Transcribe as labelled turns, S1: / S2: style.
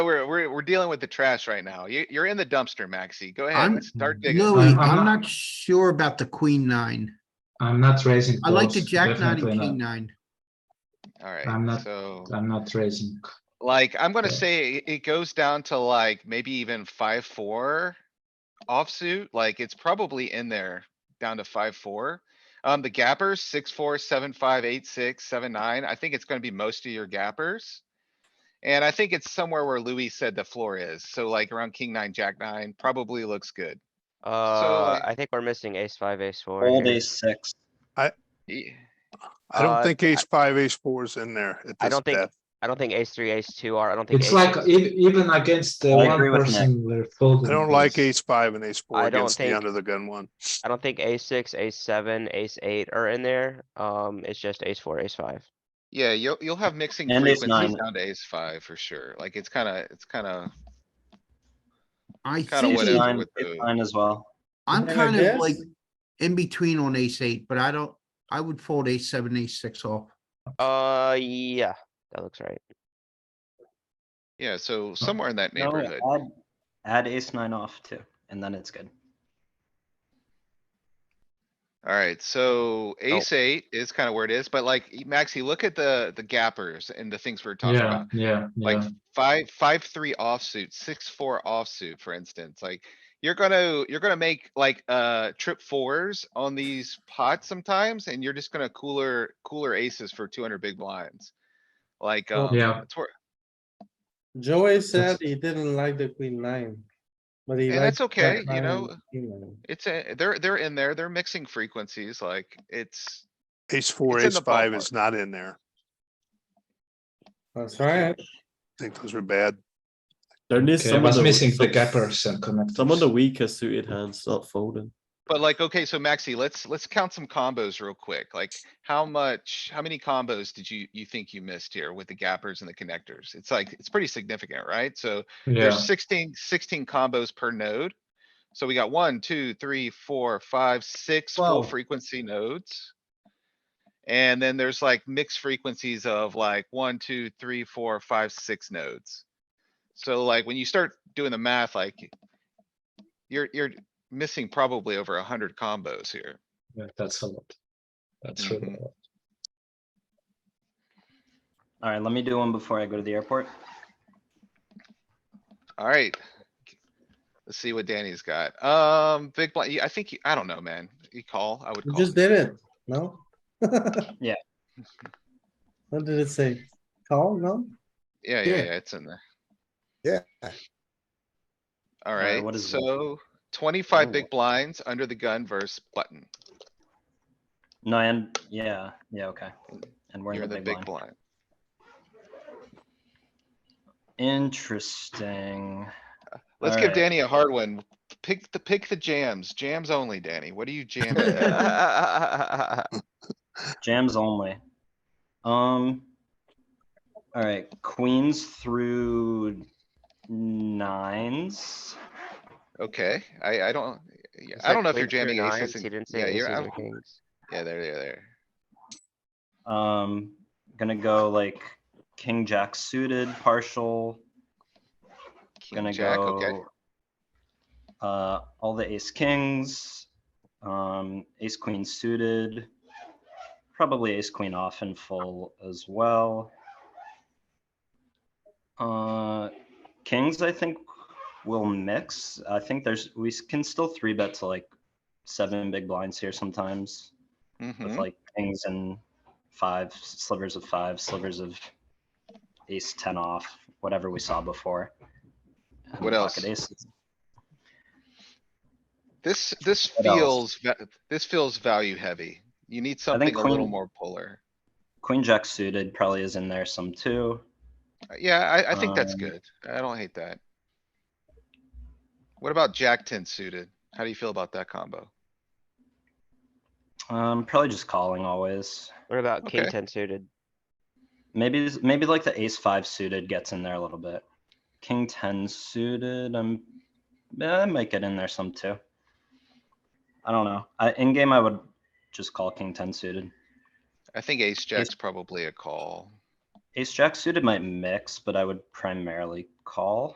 S1: We're, we're, we're dealing with the trash right now. You, you're in the dumpster, Maxi. Go
S2: I'm
S1: ahead, start digging.
S2: really,
S3: I'm- I'm
S2: I'm
S3: not-
S2: not sure about the queen nine.
S3: I'm not raising.
S2: I like
S3: calls,
S2: the jack nine and
S3: definitely
S2: king
S3: not.
S2: nine.
S3: I'm
S1: Alright,
S3: not-
S1: so
S3: I'm not raising.
S1: like, I'm gonna
S3: Yeah.
S1: say it- it goes down to like maybe even five, four. Offsuit, like it's probably in there, down to five, four. Um, the gappers, six, four, seven, five, eight, six, seven, nine. I think it's gonna be most of your gappers. And I think it's somewhere where Louis said the floor is. So like around king nine, jack nine probably looks good.
S4: Uh,
S1: like-
S4: I think we're missing ace five, ace four.
S5: Old
S4: here.
S5: ace six.
S1: Ye-
S6: I don't
S4: Uh,
S6: think ace five, ace four is in there at
S4: I
S6: this
S4: don't think-
S6: depth.
S4: I don't think ace three, ace two are, I don't think.
S3: It's
S4: ace
S3: like
S4: six-
S3: e- even against the
S5: I
S3: one
S5: agree with
S3: person we're folding.
S6: I don't like
S3: against.
S6: ace five and ace four
S4: I don't
S6: against the
S4: think-
S6: under the gun one.
S4: I don't think ace six, ace seven, ace eight are in there. Um, it's just ace four, ace five.
S1: Yeah, you'll, you'll have mixing
S5: And ace
S1: frequencies
S5: nine.
S1: down to ace five for sure. Like it's kinda, it's kinda,
S2: I
S1: Kinda
S2: think,
S1: what whatever
S5: Ace
S1: it-
S2: it-
S5: nine,
S1: with
S5: ace
S1: the-
S5: nine as well.
S2: I'm
S7: Can I
S2: kind of
S7: guess?
S2: like in between on ace eight, but I don't, I would fold ace seven, ace six off.
S4: Uh, yeah, that looks right.
S1: yeah, so somewhere in that
S5: No,
S1: neighborhood.
S5: add- Add ace nine off too, and then it's good.
S1: Alright, so ace eight is kinda where it is, but like, Maxi, look at the, the gappers and the things we're talking
S3: Yeah,
S1: about.
S3: yeah,
S1: Like
S3: yeah.
S1: five, five, three offsuit, six, four offsuit, for instance, like. You're gonna, you're gonna make like, uh, trip fours on these pots sometimes, and you're just gonna cooler, cooler aces for two hundred big blinds. Like, um,
S3: yeah.
S1: that's where-
S7: Joey said he didn't like the queen nine. But he
S1: And
S7: likes.
S1: that's okay,
S7: jack
S1: you
S7: nine and
S1: know.
S7: king nine.
S1: It's a, they're, they're in there, they're mixing frequencies, like, it's,
S6: Ace four,
S1: It's in
S6: ace
S1: the
S6: five
S1: ballpark.
S6: is not in there.
S7: That's right.
S6: I think those are bad.
S8: Don't list
S3: Okay, I
S8: some of
S3: was
S8: the
S3: missing the
S8: some-
S3: gappers and connectors.
S8: Some of the weaker suited hands start folding.
S1: but like, okay, so Maxi, let's, let's count some combos real quick, like, how much, how many combos did you, you think you missed here with the gappers and the connectors? It's like, it's pretty significant, right? So
S3: Yeah,
S1: there's 16 16 combos per node. So we got one, two, three, four, five, six full
S5: Twelve.
S1: frequency nodes. And then there's like mixed frequencies of like one, two, three, four, five, six nodes. So like when you start doing the math, like you're, you're missing probably over a hundred combos here.
S3: yeah, that's a lot. That's
S6: Mm-hmm.
S1: Mhm.
S3: really a lot.
S5: Alright, let me do one before I go to the airport.
S1: Alright. Let's see what Danny's got. Um, big blind, I think, you- I don't know, man. You call, I would
S7: You
S1: call.
S7: just did it, no?
S5: Yeah.
S7: What did it say? Call, no?
S1: Yeah, yeah, yeah, it's in there.
S9: Yeah.
S5: Alright,
S1: Alright,
S5: what is it?
S1: so twenty-five
S5: Oh.
S1: big blinds under the gun versus button.
S5: No, and, yeah, yeah, okay. And we're
S1: You're
S5: in
S1: the big
S5: blind.
S1: blind.
S5: Interesting.
S1: Let's give
S5: Alright.
S1: Danny a hard one. Pick the, pick the jams, jams only, Danny. What do you jam? at?
S4: I
S5: Jams only. Um. All right, queens through nines.
S1: Okay, I, I don't, yeah, I don't know if you're jamming aces.
S4: He
S1: and-
S4: didn't
S1: yeah,
S4: say aces
S1: you're-
S4: or
S1: I'm-
S4: kings.
S1: Yeah, there, there, there.
S5: Um, gonna go like king jack suited partial.
S1: King
S5: Gonna
S1: jack,
S5: go.
S1: okay.
S5: Uh, all the ace kings, um, ace queen suited, probably ace queen off and full as well. Uh, kings, I think will mix. I think there's, we s- can still three bet to like seven big blinds here sometimes with
S1: Mhm.
S5: like kings and five slivers of five, slivers of ace ten off, whatever we saw before. and
S1: What
S5: pocket
S1: else?
S5: aces.
S1: This, this
S5: What else?
S1: feels, va- this feels value heavy. You need something a little
S5: queen-
S1: more polar.
S5: Queen jack suited probably is in there some too.
S1: Uh, Yeah, I, I think that's
S5: Um,
S1: good. I don't hate that. What about jack ten suited? How do you feel about that combo?
S5: Um, probably just calling always.
S4: What about king
S1: Okay.
S4: ten suited?
S5: Maybe maybe like the ace five suited gets in there a little bit. King ten suited, I'm eh, I might get in there some too. I don't know. I, in game, I would just call king ten suited.
S1: I think ace jack's probably a call.
S5: Ace jack suited might mix, but I would primarily call.